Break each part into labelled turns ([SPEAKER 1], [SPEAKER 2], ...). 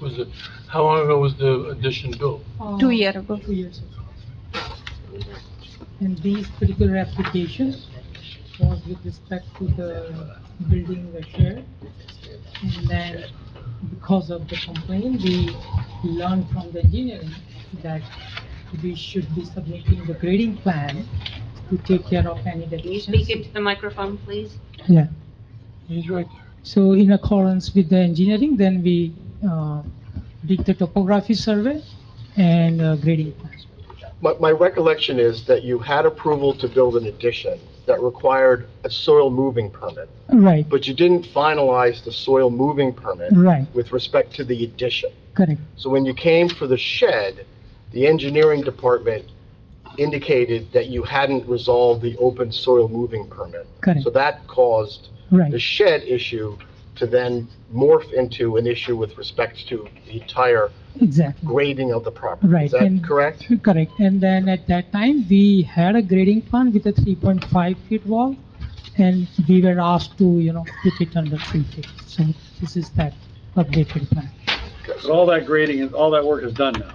[SPEAKER 1] was the, how long ago was the addition built?
[SPEAKER 2] Two year ago.
[SPEAKER 3] Uh, Two years ago. And these particular applications was with respect to the building the share. And then because of the complaint, we learned from the engineering that we should be submitting the grading plan to take care of any
[SPEAKER 4] Can you
[SPEAKER 3] deviations.
[SPEAKER 4] speak into the microphone, please?
[SPEAKER 3] Yeah.
[SPEAKER 1] He's right there.
[SPEAKER 3] So in accordance with the engineering, then we uh, did the topography survey and uh, grading plan.
[SPEAKER 5] My, my recollection is that you had approval to build an addition that required a soil moving permit,
[SPEAKER 3] Right,
[SPEAKER 5] but you didn't finalize the soil moving permit
[SPEAKER 3] right,
[SPEAKER 5] with respect to the addition.
[SPEAKER 3] correct,
[SPEAKER 5] So when you came for the shed, the engineering department indicated that you hadn't resolved the open soil moving permit.
[SPEAKER 3] correct,
[SPEAKER 5] So that caused
[SPEAKER 3] right.
[SPEAKER 5] the shed issue to then morph into an issue with respect to the entire
[SPEAKER 3] Exactly,
[SPEAKER 5] grading of the property.
[SPEAKER 3] Right,
[SPEAKER 5] Is that
[SPEAKER 3] and-
[SPEAKER 5] correct?
[SPEAKER 3] correct. And then at that time, we had a grading plan with a 3.5 feet wall, and we were asked to, you know, keep it under 3 feet. So this is that updated plan.
[SPEAKER 6] But all that grading and all that work is done now.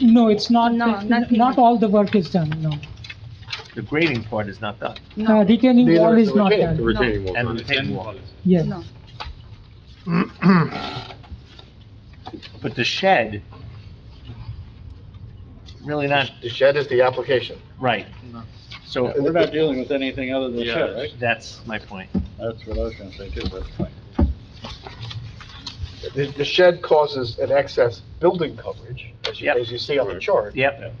[SPEAKER 3] No, it's not,
[SPEAKER 2] No, nothing.
[SPEAKER 3] not all the work is done, no.
[SPEAKER 7] The grading part is not done,
[SPEAKER 3] Uh, Retaining
[SPEAKER 5] Neither
[SPEAKER 3] wall
[SPEAKER 5] is
[SPEAKER 3] is
[SPEAKER 5] the
[SPEAKER 3] not
[SPEAKER 5] retaining-
[SPEAKER 3] done,
[SPEAKER 2] retaining
[SPEAKER 7] and the retaining wall.
[SPEAKER 3] yes.
[SPEAKER 2] No.
[SPEAKER 7] But the shed, really not,
[SPEAKER 5] The shed is the application.
[SPEAKER 7] right. So
[SPEAKER 6] We're not dealing with anything other than shed, right?
[SPEAKER 7] that's my point.
[SPEAKER 6] That's what I was gonna say too, that's fine.
[SPEAKER 5] The, the shed causes an excess building coverage, as you,
[SPEAKER 7] Yep.
[SPEAKER 5] as you see on the chart.
[SPEAKER 7] Yep,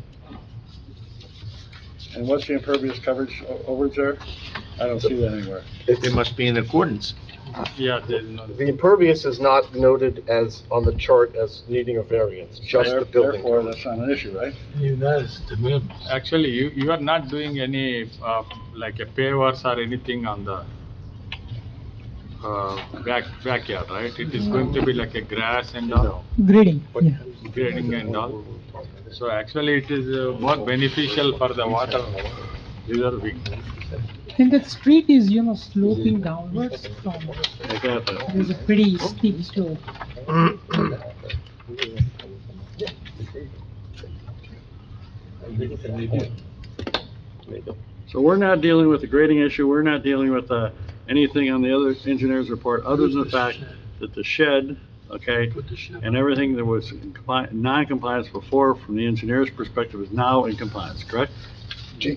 [SPEAKER 6] And what's the impervious coverage o- overage there? I don't see that anywhere.
[SPEAKER 7] it must be in accordance.
[SPEAKER 1] Yeah, they didn't know.
[SPEAKER 5] The impervious is not noted as, on the chart as needing a variance, just
[SPEAKER 6] There-
[SPEAKER 5] the building
[SPEAKER 6] Therefore,
[SPEAKER 5] coverage.
[SPEAKER 6] that's not an issue, right?
[SPEAKER 1] Even that is de minimis.
[SPEAKER 8] Actually, you, you are not doing any, uh, like a pavers or anything on the, uh, back, backyard, right? It is going to be like a grass and all,
[SPEAKER 3] Grading, yeah.
[SPEAKER 8] grading and all. So actually, it is uh, more beneficial for the water reserving.
[SPEAKER 3] And the street is, you know, sloping downwards from,
[SPEAKER 6] I got that.
[SPEAKER 3] there's a pretty steep slope.
[SPEAKER 6] So we're not dealing with the grading issue, we're not dealing with, uh, anything on the other engineer's report, other than the fact that the shed, okay,
[SPEAKER 1] Put the shed.
[SPEAKER 6] and everything that was in compli- non-compliance before, from the engineer's perspective, is now in compliance, correct?
[SPEAKER 5] Do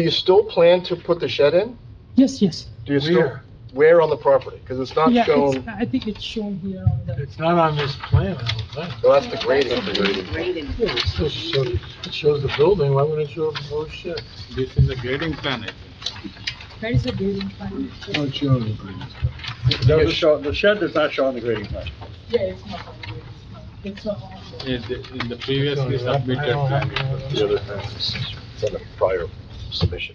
[SPEAKER 5] you still plan to put the shed in?
[SPEAKER 3] Yes, yes.
[SPEAKER 5] Do you still,
[SPEAKER 1] Where?
[SPEAKER 5] where on the property? Because it's not
[SPEAKER 3] Yeah, it's-
[SPEAKER 5] shown,
[SPEAKER 3] I think it's shown here on the,
[SPEAKER 1] It's not on this plan, I don't think.
[SPEAKER 5] well, that's the grading.
[SPEAKER 4] Graded.
[SPEAKER 1] Yeah, It still shows, it shows the building, why wouldn't it show the whole shed?
[SPEAKER 8] This is the grading plan, I think.
[SPEAKER 3] there is a grading plan.
[SPEAKER 1] Not showing the building.
[SPEAKER 6] Doesn't show- The shed does not show on the grading plan.
[SPEAKER 3] Yeah, it's not on the grading plan. It's not on the-
[SPEAKER 8] In the- in the previously submitted plan.
[SPEAKER 5] The other thing is, it's on a prior submission.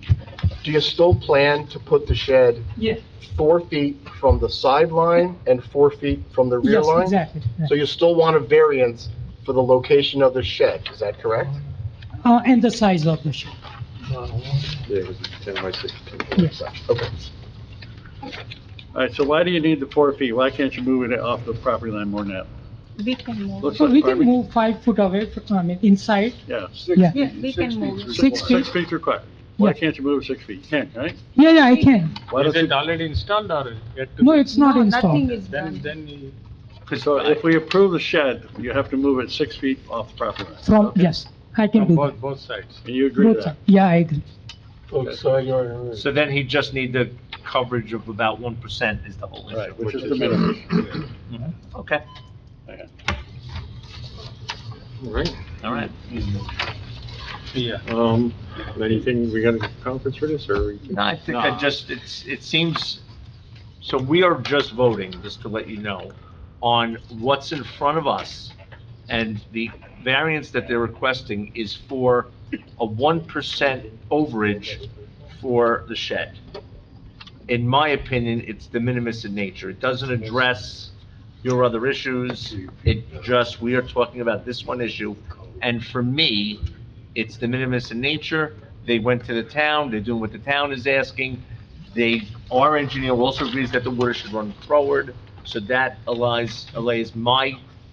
[SPEAKER 5] Do you still plan to put the shed
[SPEAKER 3] Yeah,
[SPEAKER 5] four feet from the sideline and four feet from the rear
[SPEAKER 3] yes,
[SPEAKER 5] line?
[SPEAKER 3] exactly. yeah.
[SPEAKER 5] So you still want a variance for the location of the shed, is that correct?
[SPEAKER 3] Uh, and the size of the ship,
[SPEAKER 5] Yeah, it was ten by sixteen.
[SPEAKER 3] Yes.
[SPEAKER 5] Okay.
[SPEAKER 6] All right, so why do you need the four feet? Why can't you move it off the property line more than that?
[SPEAKER 2] We can move.
[SPEAKER 6] Looks
[SPEAKER 3] So
[SPEAKER 6] like
[SPEAKER 3] we can
[SPEAKER 6] garbage.
[SPEAKER 3] move five foot away from, I mean, inside,
[SPEAKER 6] Yeah.
[SPEAKER 3] yeah.
[SPEAKER 2] Yeah, we can move.
[SPEAKER 3] Six feet,
[SPEAKER 6] Six feet's required. Why
[SPEAKER 3] Yeah.
[SPEAKER 6] can't you move it six feet? You Can't, right?
[SPEAKER 3] yeah, yeah, I can.
[SPEAKER 6] Why
[SPEAKER 8] Is
[SPEAKER 6] don't
[SPEAKER 8] it
[SPEAKER 6] you,
[SPEAKER 8] already installed or yet to?
[SPEAKER 3] No,
[SPEAKER 8] be?
[SPEAKER 3] it's not
[SPEAKER 2] No, Nothing
[SPEAKER 3] installed.
[SPEAKER 2] is
[SPEAKER 8] Then,
[SPEAKER 2] done.
[SPEAKER 8] then you-
[SPEAKER 6] so if we approve the shed, you have to move it six feet off the property line.
[SPEAKER 3] From,
[SPEAKER 8] Okay.
[SPEAKER 3] yes, I can
[SPEAKER 8] from
[SPEAKER 3] do that.
[SPEAKER 8] both, both sides.
[SPEAKER 6] And you agree
[SPEAKER 3] Both
[SPEAKER 6] to that?
[SPEAKER 3] side. Yeah, I agree.
[SPEAKER 1] Both side yard and rear.
[SPEAKER 7] So then he just need the coverage of about one percent is the whole issue.
[SPEAKER 6] Right, which is the minimum.
[SPEAKER 7] Okay,
[SPEAKER 9] Right,
[SPEAKER 7] all right.
[SPEAKER 8] Yeah.
[SPEAKER 9] um, anything, we got a conference for this, or? we-
[SPEAKER 7] No, I think I just, it's, it seems, so we are just voting, just to let you know, on what's in front of us. And the variance that they're requesting is for a one percent overage for the shed. In my opinion, it's de minimis in nature. It doesn't address your other issues. It just, we are talking about this one issue. And for me, it's de minimis in nature. They went to the town, they're doing what the town is asking. They, our engineer also agrees that the water should run forward, so that allies, allays my